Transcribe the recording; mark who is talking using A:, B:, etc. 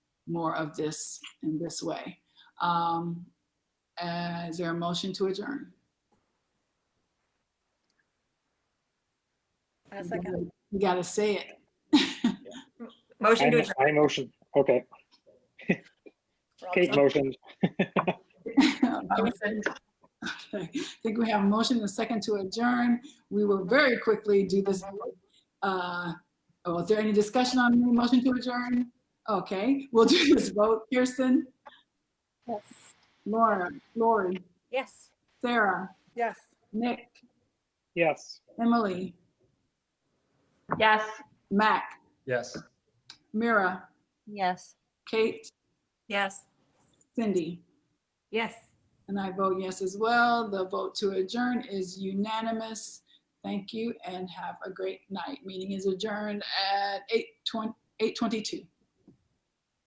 A: more of this in this way. Um, uh, Is there a motion to adjourn?
B: A second.
A: You gotta say it.
C: I
D: Motion to
C: mo-
D: adjourn.
C: I motion, okay. Kate motions.
A: I think we have a motion and a second to adjourn. We will very quickly do this. uh, Oh, is there any discussion on the motion to adjourn? Okay, we'll do this vote. Kirsten,
B: Yes.
A: Laura, Lori,
D: Yes.
A: Sarah,
B: Yes.
A: Nick,
C: Yes.
A: Emily,
D: Yes.
A: Mac,
E: Yes.
A: Mira,
B: Yes.
A: Kate,
D: Yes.
A: Cindy.
D: Yes.
A: And I vote yes as well. The vote to adjourn is unanimous. Thank you and have a great night. Meeting is adjourned at 8:20 8:22.